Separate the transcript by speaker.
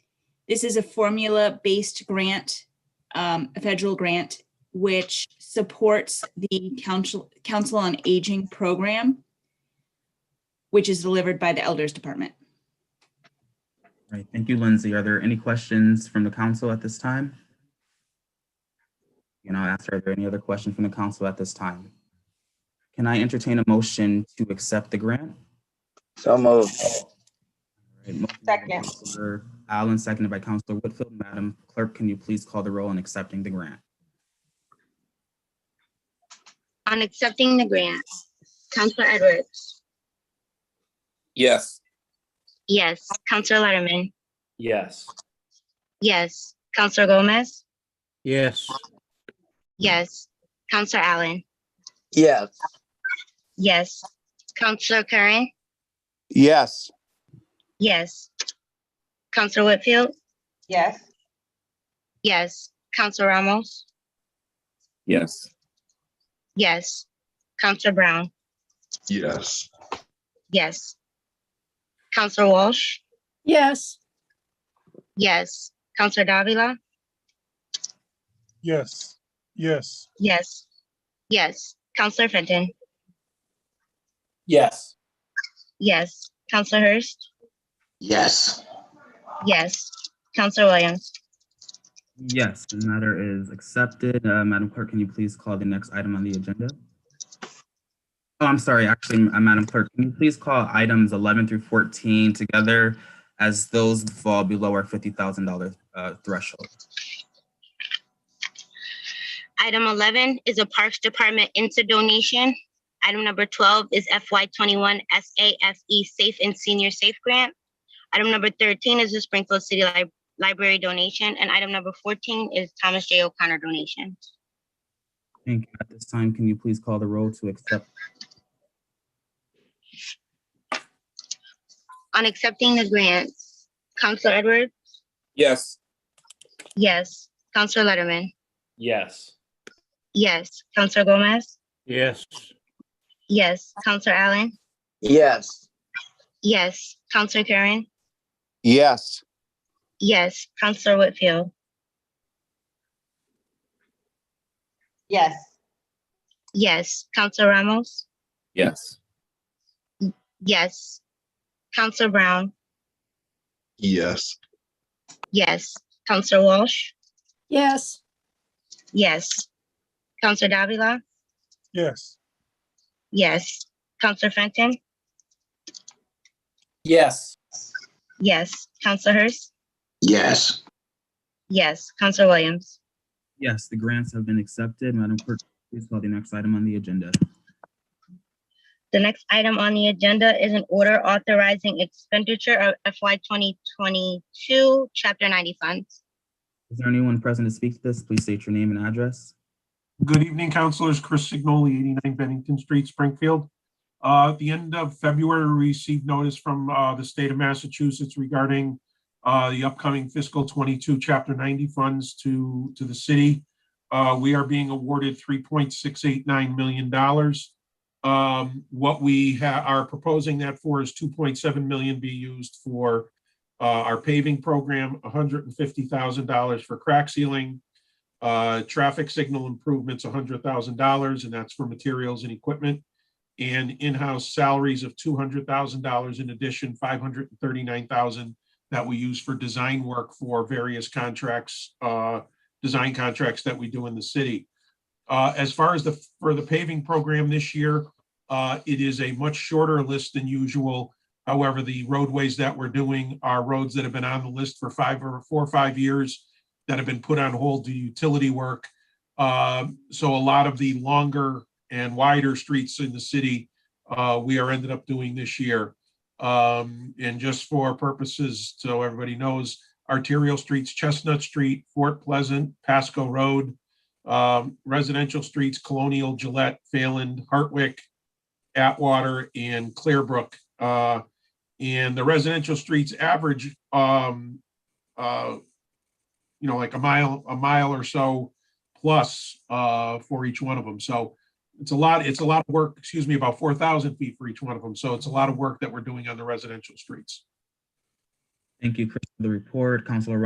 Speaker 1: This is a formula-based grant, um, a federal grant, which supports the Council, Council on Aging program, which is delivered by the Elders Department.
Speaker 2: All right, thank you, Lindsay. Are there any questions from the council at this time? And I'll ask, are there any other questions from the council at this time? Can I entertain a motion to accept the grant?
Speaker 3: So moved.
Speaker 2: All right, motion by
Speaker 4: Second.
Speaker 2: Counselor Allen, seconded by Counselor Whitfield. Madam Clerk, can you please call the roll on accepting the grant?
Speaker 5: On accepting the grant, Counselor Edwards.
Speaker 3: Yes.
Speaker 5: Yes. Counselor Letterman.
Speaker 6: Yes.
Speaker 5: Yes. Counselor Gomez.
Speaker 6: Yes.
Speaker 5: Yes. Counselor Allen.
Speaker 3: Yes.
Speaker 5: Yes. Counselor Curran.
Speaker 3: Yes.
Speaker 5: Yes. Counselor Whitfield.
Speaker 4: yes,
Speaker 5: Yes. Counselor Ramos.
Speaker 3: Yes.
Speaker 5: Yes. Counselor Brown.
Speaker 7: Yes.
Speaker 5: Yes. Counselor Walsh.
Speaker 8: yes,
Speaker 5: Yes. Counselor Davila.
Speaker 7: Yes. Yes.
Speaker 5: Yes. Yes. Counselor Fenton.
Speaker 6: Yes.
Speaker 5: Yes. Counselor Hurst.
Speaker 3: Yes.
Speaker 5: Yes. Counselor Williams.
Speaker 2: Yes, the matter is accepted. Uh, Madam Clerk, can you please call the next item on the agenda? Oh, I'm sorry, actually, uh, Madam Clerk, can you please call items 11 through 14 together as those fall below our $50,000 uh, threshold?
Speaker 5: Item 11 is a Parks Department into donation. Item number 12 is FY21 SAFE E Safe and Senior Safe Grant. Item number 13 is the Springfield City Lib- Library donation, and item number 14 is Thomas J. O'Connor donation.
Speaker 2: Thank you. At this time, can you please call the roll to accept?
Speaker 5: On accepting the grants, Counselor Edwards?
Speaker 3: Yes.
Speaker 5: Yes. Counselor Letterman?
Speaker 6: Yes.
Speaker 5: Yes. Counselor Gomez?
Speaker 6: Yes.
Speaker 5: Yes. Counselor Allen?
Speaker 3: Yes.
Speaker 5: Yes. Counselor Curran?
Speaker 3: Yes.
Speaker 5: Yes. Counselor Whitfield?
Speaker 4: yes,
Speaker 5: Yes. Counselor Ramos?
Speaker 3: Yes.
Speaker 5: Yes. Counselor Brown?
Speaker 7: Yes.
Speaker 5: Yes. Counselor Walsh?
Speaker 8: yes.
Speaker 5: Yes. Counselor Davila?
Speaker 7: Yes.
Speaker 5: Yes. Counselor Fenton?
Speaker 6: Yes.
Speaker 5: Yes. Counselor Hurst?
Speaker 3: Yes.
Speaker 5: Yes. Counselor Williams?
Speaker 2: Yes, the grants have been accepted. Madam Clerk, please call the next item on the agenda.
Speaker 5: The next item on the agenda is an order authorizing expenditure of FY 2022, Chapter 90 funds.
Speaker 2: Is there anyone present to speak to this? Please state your name and address.
Speaker 9: Good evening, Councilors. Chris Signoli, 89 Bennington Street, Springfield. Uh, At the end of February, we received notice from uh, the state of Massachusetts regarding uh, the upcoming fiscal 22 Chapter 90 funds to, to the city. Uh, We are being awarded $3.689 million. Um, What we ha- are proposing that for is 2.7 million be used for uh, our paving program, $150,000 for crack sealing, uh, traffic signal improvements, hundred thousand dollars, and that's for materials and equipment. And in-house salaries of two hundred thousand dollars in addition, five hundred and thirty-nine thousand that we use for design work for various contracts, uh, design contracts that we do in the city. Uh, as far as the, for the paving program this year, uh, it is a much shorter list than usual. However, the roadways that we're doing are roads that have been on the list for five or four or five years that have been put on hold to utility work. Um, So a lot of the longer and wider streets in the city, uh, we are ended up doing this year. Um, And just for purposes, so everybody knows, arterial streets, Chestnut Street, Fort Pleasant, Pasco Road, um, residential streets, Colonial, Gillette, Phelan, Hartwick, Atwater, and Clearbrook. Uh, And the residential streets average um, uh, you know, like a mile, a mile or so plus uh for each one of them. So it's a lot, it's a lot of work, excuse me, about four thousand feet for each one of them. So it's a lot of work that we're doing on the residential streets.
Speaker 2: Thank you, Chris, for the report. Counselor